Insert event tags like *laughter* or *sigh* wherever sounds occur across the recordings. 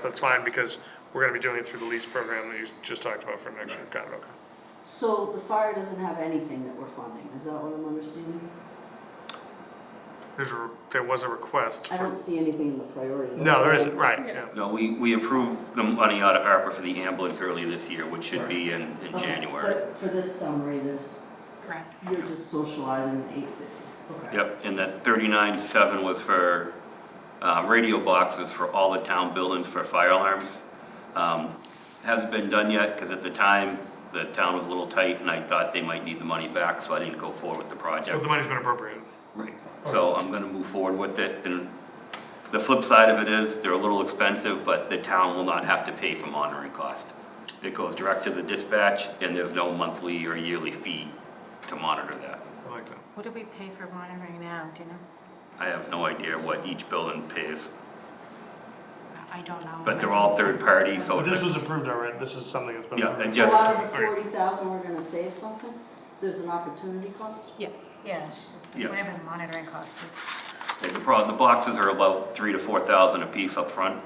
that's fine, because we're gonna be doing it through the lease program that you just talked about for next year, got it, okay. So the fire doesn't have anything that we're funding, is that what I'm understanding? There's a, there was a request I for, don't see anything in the priority. no, there isn't, right, yeah, No, we, we approved the money out of ARPA for the ambulance earlier this year, which should be in, in Okay, January. But for this summary, there's, Correct. you're just socializing the eight fifty, okay. Yep, and that thirty-nine seven was for, uh, radio boxes for all the town buildings for fire alarms. Um, hasn't been done yet, cause at the time, the town was a little tight and I thought they might need the money back, so I didn't go forward with the but project. the money's been appropriated. Right, so I'm gonna move forward with it, and the flip side of it is, they're a little expensive, but the town will not have to pay for monitoring cost. It goes direct to the dispatch, and there's no monthly or yearly fee to monitor that. I like that. What do we pay for monitoring now, do you know? I have no idea what each building pays, I don't know. but they're all third party, so. But this was approved already, this is something that's been Yeah, approved. and So Yes. out of the Okay. forty thousand, we're gonna save something? There's an opportunity cost? Yeah, yeah, it's Yeah. whatever the monitoring cost is. The problem, the boxes are about three to four thousand a piece up front,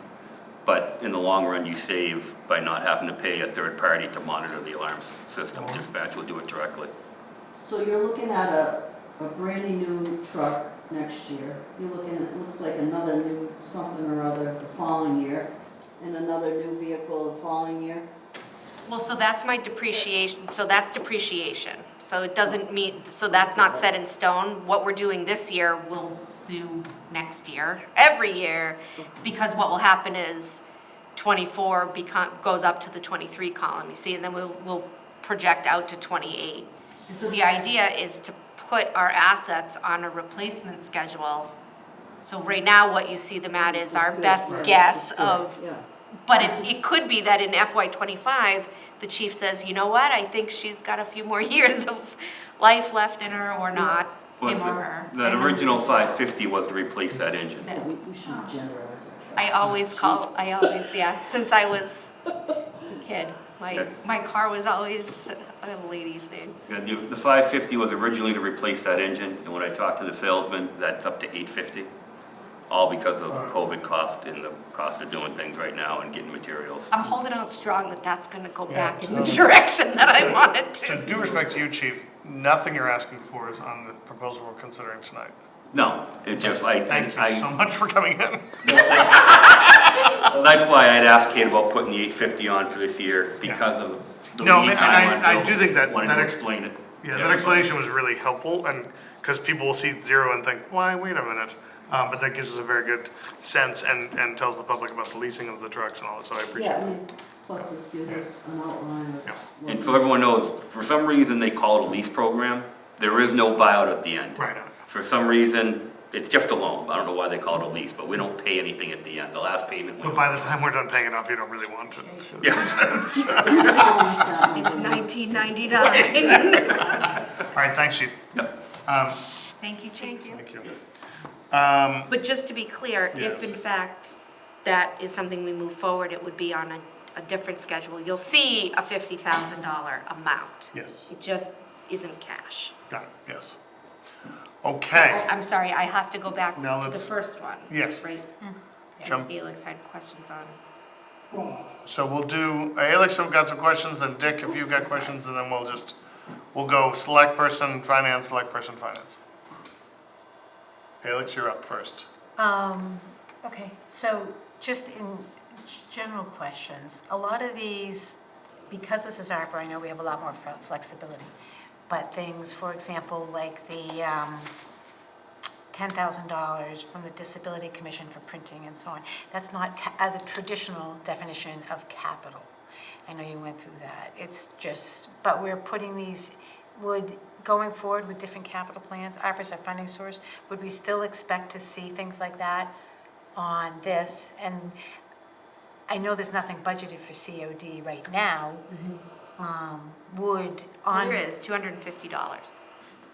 but in the long run, you save by not having to pay a third party to monitor the alarms system. Oh. Dispatch will do it directly. So you're looking at a, a brandy new truck next year. You're looking, at it looks like another new something or other the following year, and another new vehicle the following year. Well, so that's my depreciation, so that's depreciation. So it doesn't mean, so that's not set in stone. What we're doing this year, we'll do next year, every year, because what will happen is twenty-four become, goes up to the twenty-three column, you see, and then we'll, we'll project out to twenty-eight. And so the idea is to put our assets on a replacement schedule. So right now, what you see them at is our This good, best right, this guess is good, of yeah. but it, it could be that in FY twenty-five, the chief says, you know what, I think she's got a few more *laughs* years of life left in her or not, But him or her. the- that original five fifty was to replace that engine. Yeah, we, we Um, shouldn't generalize our truck. I always call, Jeez. I always, yeah, since I was a kid, my, Okay. my car was always a lady's name. Yeah, The, the five fifty was originally to replace that engine, and when I talked to the salesman, that's up to eight fifty. All because of COVID cost and the cost of doing things right now and getting materials. I'm holding out strong that that's gonna go Yeah, back in the totally. direction that I wanted So to. due respect to you, chief, nothing you're asking for is on the proposal we're considering tonight. No, it just, I, Thank you so I, much for coming in. that's why I'd asked Kate about putting the eight fifty on for this year, because of the No, and I- lead time on I build. do think that- Wanted that to ex- explain it. Yeah, that explanation was really helpful, and, because people will see zero and think, why, wait a minute. Um, but that gives us a very good sense and, and tells the public about the leasing of the trucks and all that, so I appreciate Yeah, it. I mean, plus this gives us an outline of. Yeah. what- And so everyone knows, for some reason, they call it a lease program, there is no buyout at the end. Right, uh, For some reason, it's just a loan, I don't know why they call it a lease, but we don't pay anything at the end, the last payment. we- but by the time we're done paying it off, you don't really want to. *laughs* Yeah. It's nineteen ninety-nine. All right, thanks, chief. Yep. Um, Thank you, Chief. thank you. Um, But just to be clear, if in Yes. fact that is something we move forward, it would be on a, a different schedule. You'll see a fifty thousand dollar amount. yes, It just isn't cash. got it, yes. Okay, I'm sorry, I have to go back Now to the let's- first one. yes. Right? Jump. Felix had questions on. so we'll do, uh, Alex, have got some questions, and Dick, if you've got questions, and then we'll just, we'll go select person, finance, select person, finance. Alex, you're up first. Um, okay, so just in g- general questions, a lot of these, because this is ARPA, I know we have a lot more fle- flexibility, but things, for example, like the, um, ten thousand dollars from the Disability Commission for printing and so on, that's not ta- uh, the traditional definition of capital. I know you went through that, it's just, but we're putting these, would, going forward with different capital plans, ARPA's our funding source, would we still expect to see things like that on this? And I know there's nothing budgeted for COD right now. Um, Would on. Here is two hundred and fifty dollars. *laughs*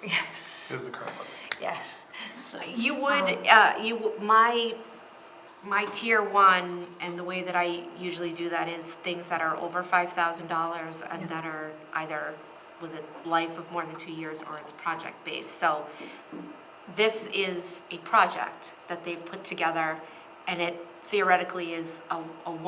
Yes, Is the current one. yes. So you would, uh, you, w- my, my tier one, and the way that I usually do that is things that are over five thousand dollars and that are either with a life of more than two years or it's project-based. So this is a project that they've put together, and it theoretically is a, a